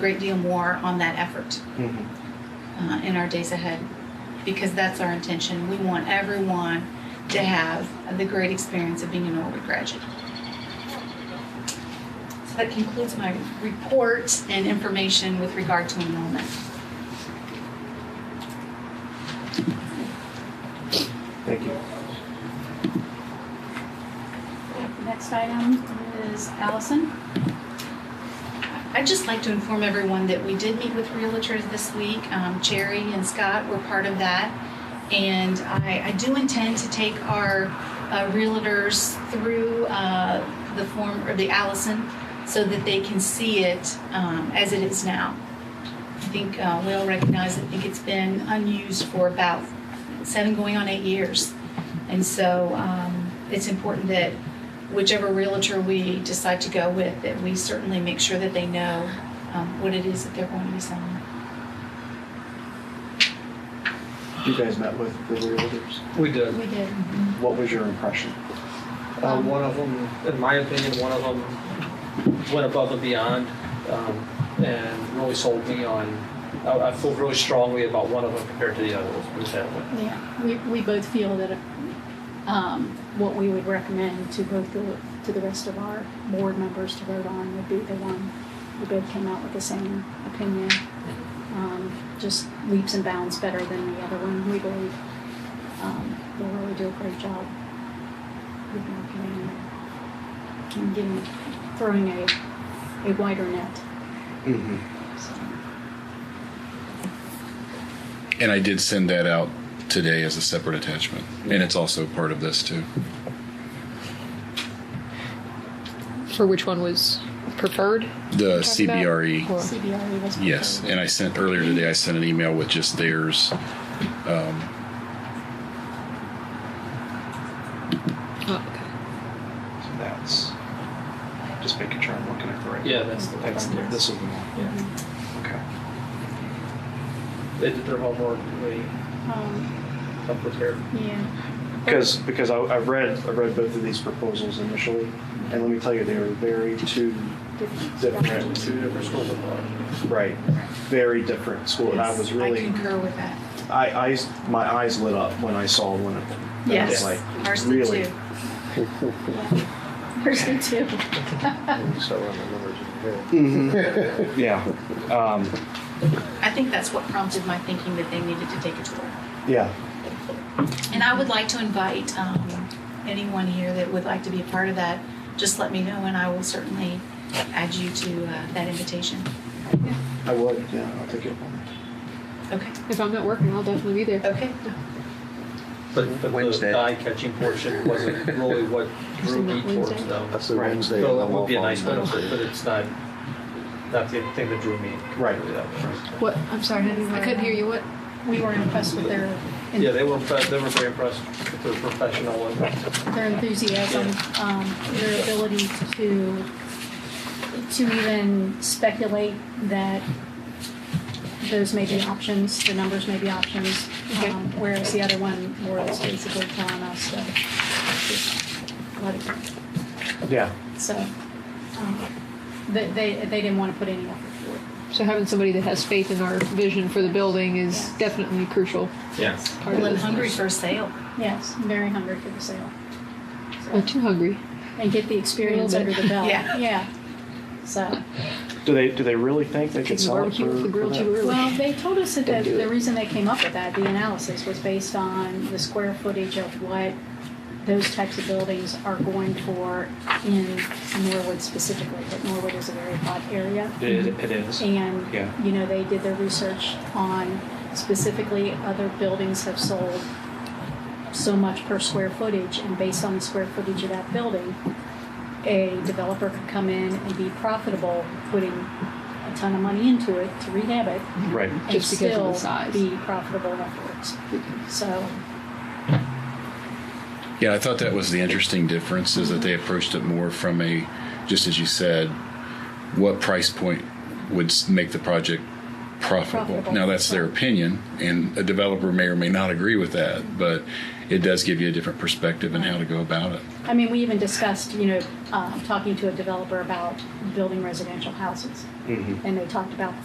great deal more on that effort uh, in our days ahead because that's our intention. We want everyone to have the great experience of being an Norwood graduate. So that concludes my report and information with regard to enrollment. Thank you. Next item is Allison. I'd just like to inform everyone that we did meet with realtors this week. Um, Jerry and Scott were part of that. And I, I do intend to take our uh, realtors through uh, the form, or the Allison, so that they can see it um, as it is now. I think uh, we all recognize, I think it's been unused for about seven, going on eight years. And so um, it's important that whichever realtor we decide to go with, that we certainly make sure that they know um, what it is that they're going to be selling. You guys met with the realtors. We did. We did. What was your impression? Uh, one of them, in my opinion, one of them went above and beyond um, and really sold me on. I, I feel really strongly about one of them compared to the others. Put it that way. Yeah, we, we both feel that, um, what we would recommend to both the, to the rest of our board members to vote on would be the one, we both came out with the same opinion. Um, just leaps and bounds better than the other one, we believe. Um, they really do a great job with marketing and getting, throwing a, a wider net, Mm-hmm. so. And I did send that out today as a separate attachment, and it's also part of this too. for which one was preferred. The Talking about- CBRE. or- CBRE E was. E. Yes, and I sent earlier today. I sent an email with just theirs. Um, oh, okay. So that's just making sure I'm looking at the right. Yeah, that's the one. That's right this is the one. there. Okay. Yeah. They did their homework. They Um, come prepared. yeah. Because because I, I read I read both of these proposals initially, and let me tell you they were very two different, Two different schools of thought. right, very different school. And I was I really concur with that. I, I my eyes lit up when I saw one of them. That Yes. was Ours like did really. too. There's me too. Mhm. yeah. Um, I think that's what prompted my thinking that they needed to take a tour. yeah. And I would like to invite um, anyone here that would like to be a part of that, just let me know and I will certainly add you to uh, that invitation. I would. Yeah. I'll take it. Okay? If I'm not working, I'll definitely be there. Okay. But, but Wednesday. the eye-catching portion wasn't really what drew me towards them. That's the Right. Wednesday. So that it would be a we'll nice follow. benefit, but it's not not the thing that drew me. Right. What, I'm sorry, I I couldn't hear you. What? We were impressed with their, Yeah, they were impre- they were very impressed with their professional and their enthusiasm, um, their ability to, to even speculate that those may be options, the numbers may be options, um, whereas the other one was basically telling us that just let it go. Yeah. So, um, they, they, they didn't want to put any effort forward. So having somebody that has faith in our vision for the building is Yeah. definitely crucial. yeah. Part Well, I'm this. hungry for a sale. Yes, very hungry for the sale. Not Uh, too hungry. and get the experience Little under bit. the belt. Yeah. So, Do they do they really think they could Taking the sell it barbecue for, off the grill for too that? early. well, they told us that Don't the, do the it. reason they came up with that, the analysis was based on the square footage of what those types of buildings are going for in Norwood specifically. But Norwood is a very hot area. It, it is. And, Yeah. you know, they did their research on specifically other buildings have sold so much per square footage, and based on the square footage of that building, a developer could come in and be profitable, putting a ton of money into it to rehab it, Right. and Just because of still the size. be profitable afterwards. So, yeah, I thought that was the interesting difference is that they approached it more from a, just as you said, what price point would s- make the project profitable. Profitable. Now that's their opinion, and a developer may or may not agree with that, but it does give you a different perspective and how to go about it. I mean, we even discussed, you know, um, talking to a developer about building residential houses. And they talked about